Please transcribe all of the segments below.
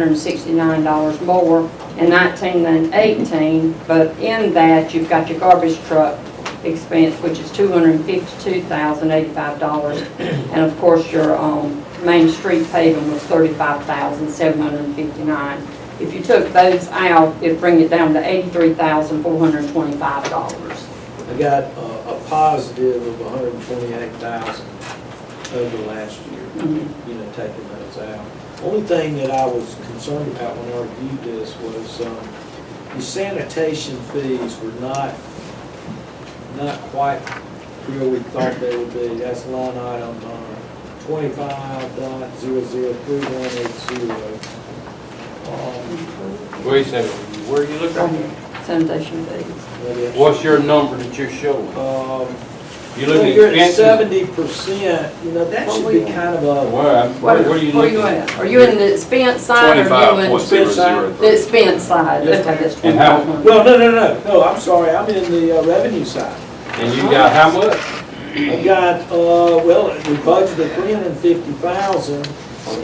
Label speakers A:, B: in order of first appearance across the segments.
A: $161,269 more in 19 than 18, but in that, you've got your garbage truck expense, which is $252,085. And of course, your um, Main Street paving was $35,759. If you took those out, it'd bring it down to $83,425.
B: I got a, a positive of hundred and twenty-eight thousand over last year,
A: Mhm.
B: you know, taking those out. Only thing that I was concerned about when I reviewed this was, um, the sanitation fees were not, not quite where we thought they would be. That's line item, uh, twenty-five dot zero zero three one eight Um, zero.
C: Wait a second, where are you looking at?
A: Sanitation fees.
C: What's your number that you're showing?
B: Um,
C: You
B: Well,
C: looking
B: You're
C: at
B: at
C: expenses? Oh,
B: seventy percent, you know, that
A: What
B: should
A: we
B: be
A: want.
B: kind of a,
C: Where, I'm- where where are you looking?
A: at? Are you in the expense side or you
D: Twenty-five
A: in
D: point zero zero
A: the
D: three.
A: expense side?
B: Yes,
A: Okay, that's
C: And how-
A: 25.
B: well, no, no, no, no, I'm sorry, I'm in the uh, revenue side.
C: And you got how much?
B: I've got, uh, well, we budgeted three hundred and fifty thousand,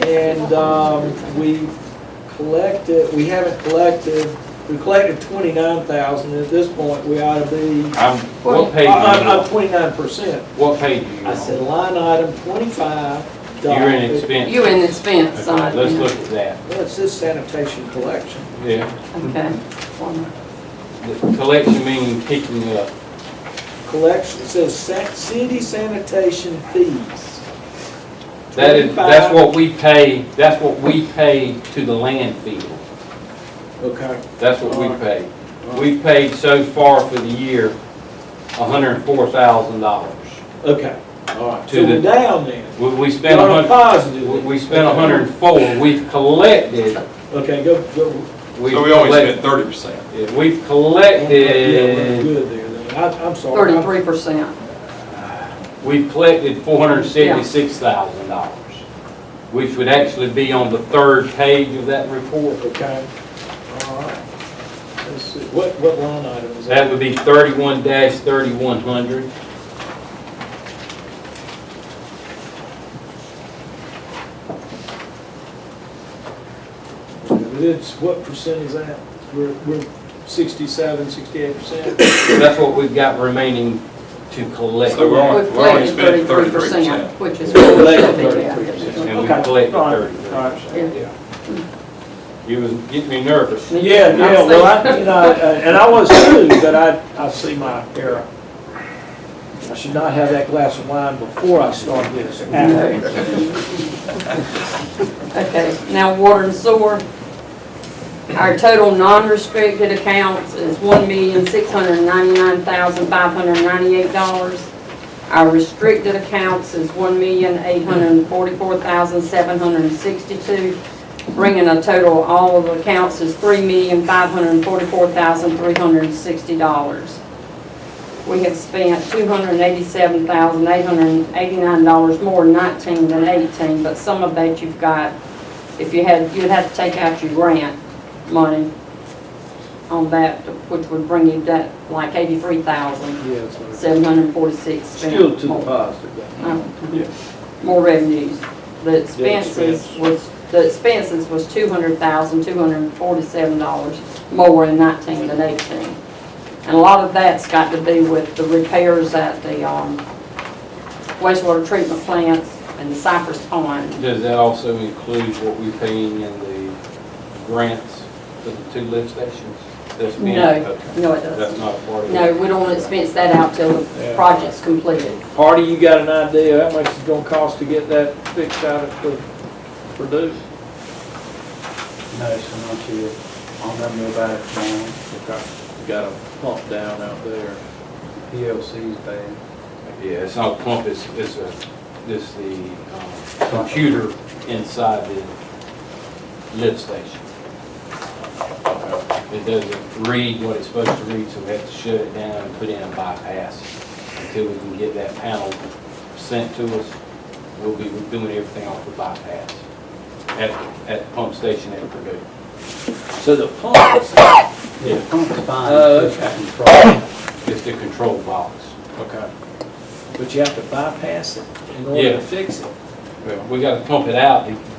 B: and, um, we collected, we haven't collected, we collected twenty-nine thousand, at this point, we ought to be,
C: I'm, what page are
B: I'm,
C: you
B: I'm
C: on?
B: twenty-nine percent.
C: What page are you
B: I said
C: on?
B: line item twenty-five.
C: You're in
B: dollars.
C: expenses.
A: You in the expense
C: Okay,
A: side?
C: Let's
A: yeah.
C: look at that.
B: Well, it's this sanitation collection.
C: Yeah,
A: Okay. One
C: the collection meaning picking up.
B: collection, it says sa- city sanitation fees.
C: That is, that's what we pay, that's what we pay to the landfill.
B: Okay.
C: That's what we pay. We've paid so far for the year, hundred and four thousand dollars.
B: Okay, all right.
C: To
B: So we're
C: the-
B: down then.
C: We, we spent a
B: You're on a
C: hundred,
B: positive.
C: we
B: then.
C: we spent a hundred and four, we've collected,
B: Okay, go, go.
C: we've
D: So we only
C: collected.
D: spent thirty percent.
C: yeah, We've
B: Yeah, we're
C: collected,
B: Good there then. I, I'm sorry. I'm-
A: Thirty-three percent.
C: we've collected four hundred and seventy-six thousand dollars, which would actually be on the third page of that report.
B: Okay, all right. Let's see, what, what line item is
C: That
B: that?
C: would be thirty-one dash thirty-one hundred.
B: It's, what percent is that? We're, we're sixty-seven, sixty-eight percent?
C: That's what we've got remaining to collect.
D: So we're on-
A: We've
D: We've already
A: collected
D: spent
A: thirty-three
D: 33%.
A: percent, which is.
B: We've
A: what we
B: collected
A: should be, yeah.
B: 33%.
C: And we
B: Okay.
C: collected
B: All right.
C: thirty-three
B: All right.
C: percent, yeah. You was getting me nervous.
B: Yeah,
A: I'm
B: yeah, well, I,
A: saying-
B: you know, and I was too, but I, I see my error. I should not have that glass of wine before I start this.
A: Okay, now water and sewer. Our total non-restricted accounts is one million, six hundred and ninety-nine thousand, five hundred and ninety-eight dollars. Our restricted accounts is one million, eight hundred and forty-four thousand, seven hundred and sixty-two, bringing a total, of all of the accounts is three million, five hundred and forty-four thousand, three hundred and sixty dollars. We have spent two hundred and eighty-seven thousand, eight hundred and eighty-nine dollars more in nineteen than eighteen, but some of that you've got, if you had, you'd have to take out your grant money on that, which would bring you that, like eighty-three thousand, seven hundred and forty-six
B: Still
A: spent
B: to the
A: more.
B: positive. though.
A: Uh, More revenues. The expenses
B: expense.
A: was, the expenses was two hundred thousand, two hundred and forty-seven dollars more in nineteen than eighteen. And a lot of that's got to do with the repairs at the, um, wastewater treatment plants and the Cypress Pond.
C: Does that also include what we paying in the grants for the two lift stations? That's being-
A: No,
C: okay.
A: no, it
C: That's
A: doesn't.
C: not part of
A: No,
C: it.
A: we don't expense that out till the
B: Yeah.
A: project's completed.
B: Hardy, you got an idea how much it's gonna cost to get that fixed out at the Purdue?
E: No, so not you, I'll never know about it now,
B: Okay. You Got a pump down out there.
E: PLC's bad.
C: Yeah, it's not pump, it's, it's a, it's the um, computer inside the lift station. It doesn't read what it's supposed to read, so we have to shut it down and put in a bypass until we can get that panel sent to us. We'll be doing everything off the bypass at, at the pump station at Purdue.
B: So the pump is.
C: Yeah,
E: Pump's fine.
B: Oh,
E: it's
B: okay.
E: just control.
C: it's the control box.
B: Okay. But you have to bypass it in order
C: Yeah.
B: to fix it.
C: Well, We gotta pump it out to